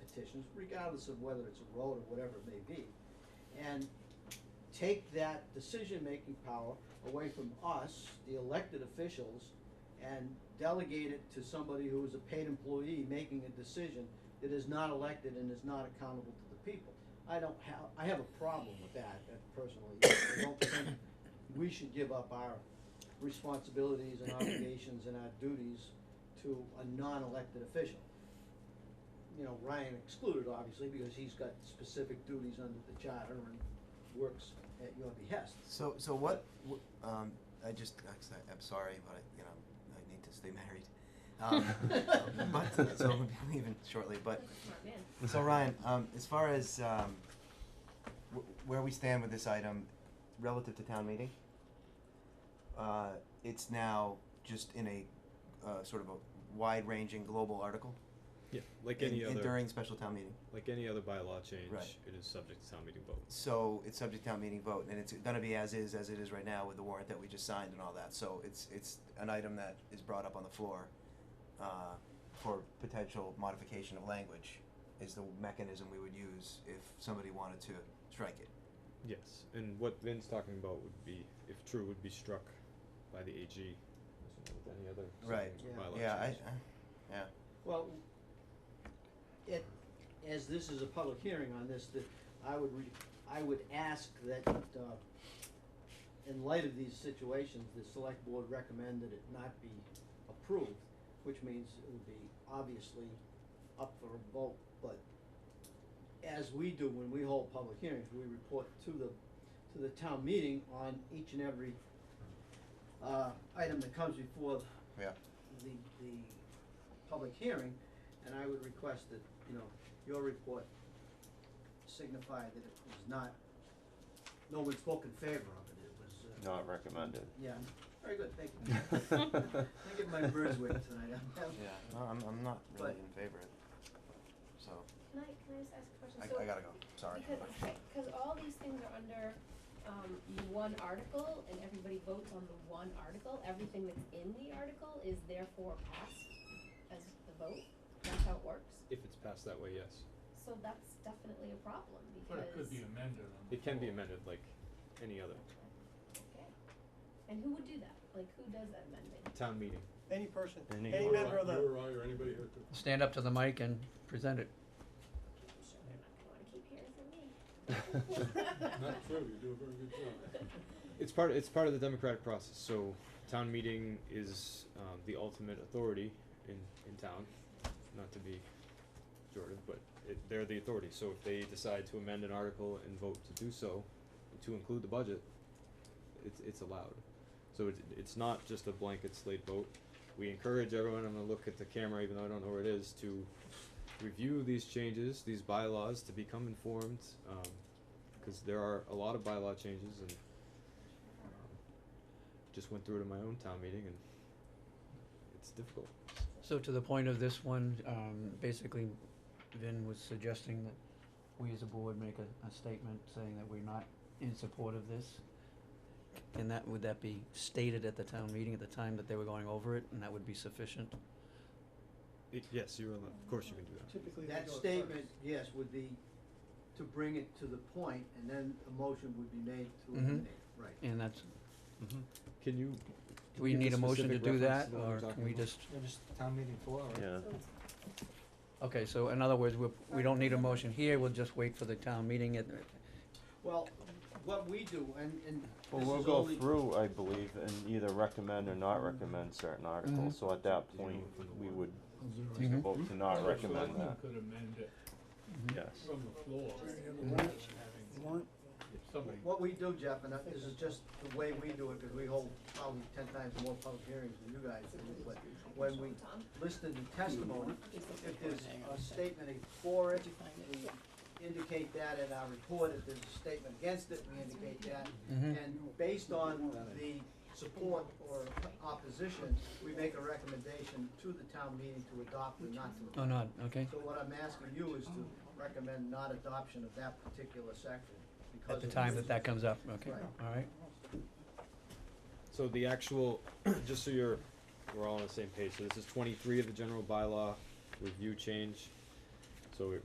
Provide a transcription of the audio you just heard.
petitions, regardless of whether it's a road or whatever it may be. And take that decision-making power away from us, the elected officials, and delegate it to somebody who is a paid employee making a decision that is not elected and is not accountable to the people. I don't have, I have a problem with that uh, personally. I don't think we should give up our responsibilities and obligations and our duties to a non-elected official. You know, Ryan excluded, obviously, because he's got specific duties under the charter and works at your behest. So, so what, wh- um, I just, I- I'm sorry, but I, you know, I need to stay married. Um, but, so we'll be leaving shortly, but, Smart man. so Ryan, um, as far as, um, wh- where we stand with this item relative to town meeting, uh, it's now just in a, uh, sort of a wide-ranging global article? Yeah, like in- any in- other, During special town meeting? like any other bylaw change, Right. it is subject to town meeting vote. So it's subject to town meeting vote, and it's gonna be as is, as it is right now with the warrant that we just signed and all that, so it's, it's an item that is brought up on the floor, uh, for potential modification of language, is the mechanism we would use if somebody wanted to strike it. Yes, and what Vin's talking about would be, if true, would be struck by the AG, as with any other Right. zoning Yeah. bylaw Yeah, I, I, change. yeah, Well, it, as this is a public hearing on this, that I would re, I would ask that, uh, in light of these situations, the select board recommend that it not be approved, which means it would be obviously up for a vote, but as we do when we hold public hearings, we report to the, to the town meeting on each and every, uh, item that comes before yeah, the, the public hearing, and I would request that, you know, your report signify that it was not, no one spoke in favor of it, it was, uh, Not recommended. yeah, very good, thank you. I get my bird's wing tonight, I'm, I'm- yeah, no, I'm, I'm not really But- in favor of it, so, Can I, can I just ask a question? I, So- I gotta go, sorry. Because, because all these things are under, um, one article, and everybody votes on the one article, everything that's in the article is therefore passed as the vote, that's how it works. If it's passed that way, yes. So that's definitely a problem, because. But it could be amended on the It can be floor. amended like any other. Okay, and who would do that, like, who does that amending? Town meeting. Any person, Any- You any member of the, I or anybody here could. stand up to the mic and present it. I'm sure they're not gonna wanna keep hearing from me. Not true, you do a very good job. It's part, it's part of the democratic process, so town meeting is, um, the ultimate authority in, in town, not to be pejorative, but it, they're the authority, so if they decide to amend an article and vote to do so, to include the budget, it's, it's allowed. So it's, it's not just a blanket slate vote, we encourage everyone, I'm gonna look at the camera even though I don't know where it is, to review these changes, these bylaws, to become informed, um, cause there are a lot of bylaw changes and just went through it in my own town meeting and it's difficult. So to the point of this one, um, basically Vin was suggesting that we as a board make a, a statement saying that we're not in support of this. And that, would that be stated at the town meeting at the time that they were going over it, and that would be sufficient? yes, you're allowed, of course you can do that. typically they that go at statement, first. yes, would be to bring it to the point, and then a motion would be made to Mhm. eliminate, right. And that's, Can you? do we give need the a motion to specific do reference that, to the one or you're can talking we about? just, just town meeting floor, Yeah. So it's okay, so in other words, we, we don't need a motion here, we'll just wait for the town meeting at, Well, what we do, and, and Well, this we'll is go only- through, I believe, and either recommend or not recommend certain articles, Mm-hmm. so at that Did you point, vote for the we one? would Mhm. vote to not recommend Selectmen that, could amend it Mm-hmm. yes. from the floor, having, Warrant, if somebody What we do, Jeff, and this is just the way we do it, because we hold probably ten times more public hearings than you guys do, but when we listed the testimony, if there's a statement for it, we indicate that in our report, if there's a statement against it, we indicate that. Mhm. And based on the support or opposition, we make a recommendation to the town meeting to adopt or not to oh, adopt. no, okay? So what I'm asking you is to recommend not adoption of that particular section because At of the time that that comes up, okay, Right. all right? So the actual, just so you're, we're all on the same page, so this is twenty-three of the general bylaw review change. So it